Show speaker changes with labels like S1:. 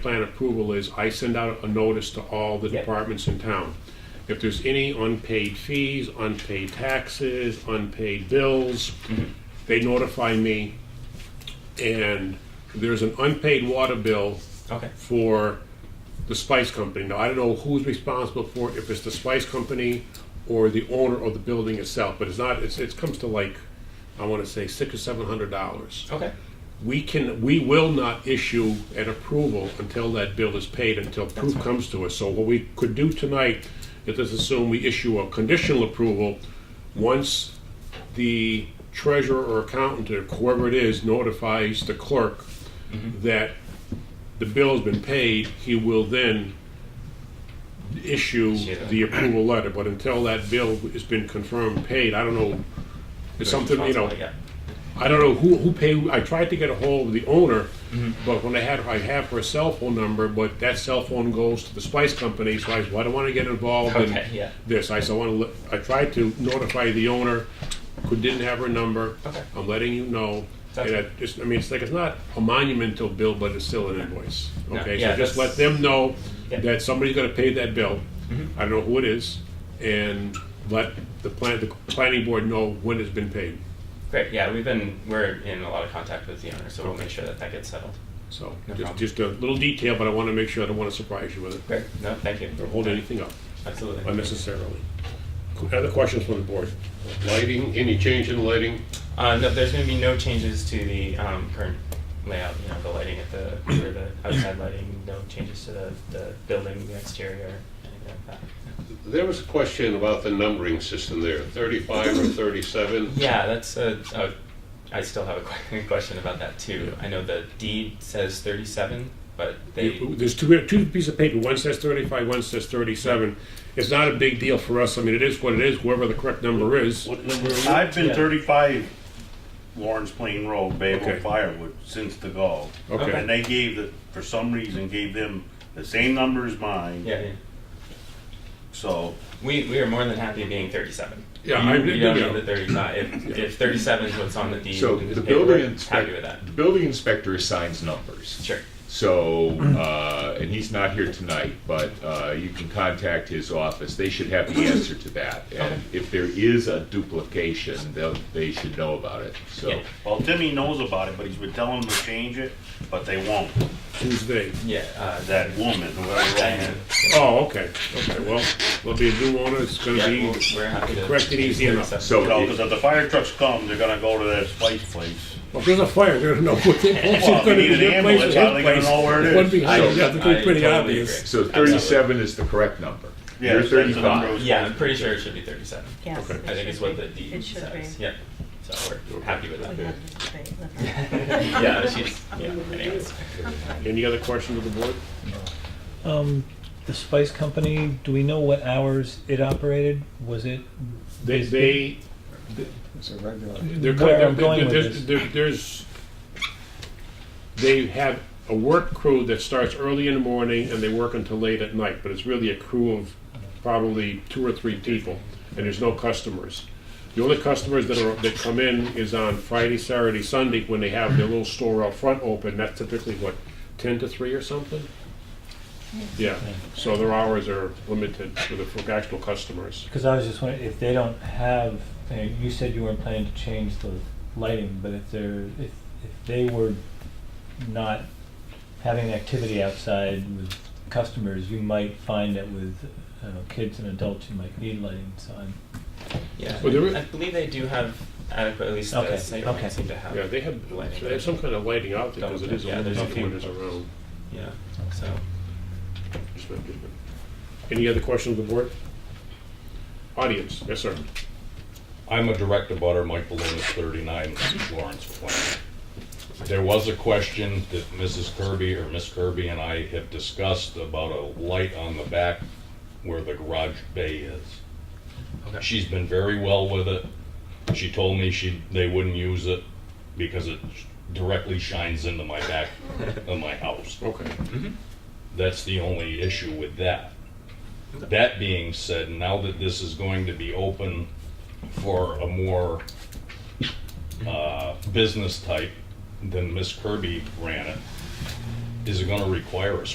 S1: plan approval is I send out a notice to all the
S2: Yep.
S1: departments in town. If there's any unpaid fees, unpaid taxes, unpaid bills, they notify me. And there's an unpaid water bill
S2: Okay.
S1: for the spice company. Now, I don't know who's responsible for it, if it's the spice company or the owner of the building itself, but it's not, it's, it comes to like, I want to say six or seven hundred dollars.
S2: Okay.
S1: We can, we will not issue an approval until that bill is paid, until proof comes to us. So what we could do tonight is just assume we issue a conditional approval once the treasurer or accountant or whoever it is notifies the clerk that the bill has been paid, he will then issue
S2: Yeah.
S1: the approval letter. But until that bill has been confirmed paid, I don't know, it's something, you know,
S2: Responsible, yeah.
S1: I don't know who, who paid, I tried to get a hold of the owner,
S2: Mm-hmm.
S1: but when I had, I have her cell phone number, but that cell phone goes to the spice company, so I said, well, I don't wanna get involved in
S2: Okay, yeah.
S1: this, I said, I wanna, let- I tried to notify the owner, could, didn't have her number.
S2: Okay.
S1: I'm letting you know, and
S2: That's-
S1: I just, I mean, it's like, it's not a monumental bill, but it's still an invoice,
S2: No,
S1: okay?
S2: yeah,
S1: So just let
S2: that's-
S1: them know
S2: Yeah. Mm-hmm.
S1: that somebody's gonna pay that bill, I don't know who it is, and let the plan, the planning board know when it's been paid,
S2: Great. Yeah, we've been we're in a lot of contact with the owner, so we'll make sure that that gets settled.
S1: So,
S2: No
S1: just,
S2: problem.
S1: just a little detail, but I want to make sure, I don't want to surprise you with it,
S2: Great. No, thank you.
S1: or hold anything up
S2: Absolutely.
S1: unnecessarily. Other questions from the board?
S3: Lighting, any change in lighting?
S2: Uh, no, there's going to be no changes to the um, current layout. You know, the lighting at the or the outside lighting. No changes to the, the building, the exterior, anything like that.
S3: There was a question about the numbering system there, 35 or 37?
S2: Yeah, that's a. a I still have a que- question about that too. I know the deed says 37, but they.
S1: You- There's two, two pieces of paper, one says thirty-five, one says thirty-seven. It's not a big deal for us, I mean, it is what it is, whoever the correct number is.
S4: What number? I've
S2: Yeah.
S4: been thirty-five Lawrence Plain Road,
S1: Okay.
S4: Babel Firewood, since the go.
S1: Okay.
S4: And they gave the, for some reason, gave them the same number as mine,
S2: yeah, yeah.
S4: so.
S2: We, we are more than happy being 37.
S1: Yeah,
S2: you,
S1: I-
S2: you don't
S1: yeah.
S2: need the 35. If, if 37 is what's on the deed,
S5: So
S2: then hey,
S5: the building
S2: we're happy with
S5: inspector,
S2: that.
S5: the building inspector assigns numbers.
S2: Sure.
S5: So, uh, and he's not here tonight, but uh, you can contact his office. They should have the answer to that. And if there is a duplication, they'll, they should know about it, so.
S2: Yeah.
S4: Well, Timmy knows about it, but he's been telling them to change it, but they won't.
S1: Who's they?
S2: Yeah. Uh,
S4: That woman, whoever that
S2: Diane.
S4: is.
S1: Oh, okay, okay, well, there'll be a new owner, it's gonna
S2: Yeah,
S1: be,
S2: we'll- we're happy to.
S1: correct it easy enough.
S2: 37.
S5: So-
S4: Because if the fire trucks come, they're gonna go to that spice place.
S1: well, if there's a fire, they're gonna know what they, it's
S4: Well, if
S1: gonna
S4: you
S1: be
S4: need
S1: their
S4: an
S1: place or his
S4: ambulance, how they gonna
S1: place.
S4: know where it
S1: One
S4: is?
S1: behind, yeah,
S5: So-
S1: it's gonna
S2: I
S1: be pretty
S2: totally
S1: obvious.
S5: So 37 is the correct number.
S4: Yeah,
S5: You're
S4: that's the number it
S5: 35.
S4: was
S2: Yeah, I'm
S4: supposed
S2: pretty sure it should be 37.
S6: Yes.
S1: Okay.
S6: it
S2: I think
S6: should
S2: it's what
S6: be.
S2: the deed
S6: It should
S2: says.
S6: be.
S2: Yeah. So we're happy with
S6: We
S2: that.
S6: had the debate.
S2: yeah, she's. Yeah, anyways.
S1: Any other questions of the board?
S7: Um, the spice company, do we know what hours it operated? Was it?
S1: They,
S7: is-
S1: they,
S8: It's a regular.
S1: They're
S7: Where
S1: kind
S7: I'm
S1: of,
S7: going with
S1: there's,
S7: this.
S1: there- there's, they have a work crew that starts early in the morning and they work until late at night, but it's really a crew of probably two or three people, and there's no customers. The only customers that are, that come in is on Friday, Saturday, Sunday, when they have their little store out front open, that's typically what, ten to three or something? Yeah, so their hours are limited for the, for actual customers.
S7: Because I was just wondering if they don't have. you know, You said you weren't planning to change the lighting, but if they're if if they were not having activity outside with customers, you might find that with uh, kids and adults, you might need lighting. So I'm
S2: Yeah.
S1: Well, there is-
S2: I believe they do have adequate, at least the
S7: Okay,
S2: site
S7: okay.
S2: seem to have.
S1: Yeah, they have,
S2: lighting.
S1: they have some kind of lighting out there, because it is a
S2: Yeah,
S1: little
S2: there's a
S1: tough
S2: few.
S1: when it's around.
S2: Yeah. So.
S1: Any other questions of the board? Audience, yes, sir.
S9: I'm a direct abutter, Mike Balonis, 39 Lawrence Plain. There was a question that Mrs. Kirby or Miss Kirby and I have discussed about a light on the back where the garage bay is. She's been very well with it. She told me she, they wouldn't use it because it directly shines into my back of my house.
S1: Okay.
S9: That's the only issue with that. That being said, now that this is going to be open for a more uh, business type than Miss Kirby ran it, is it gonna require a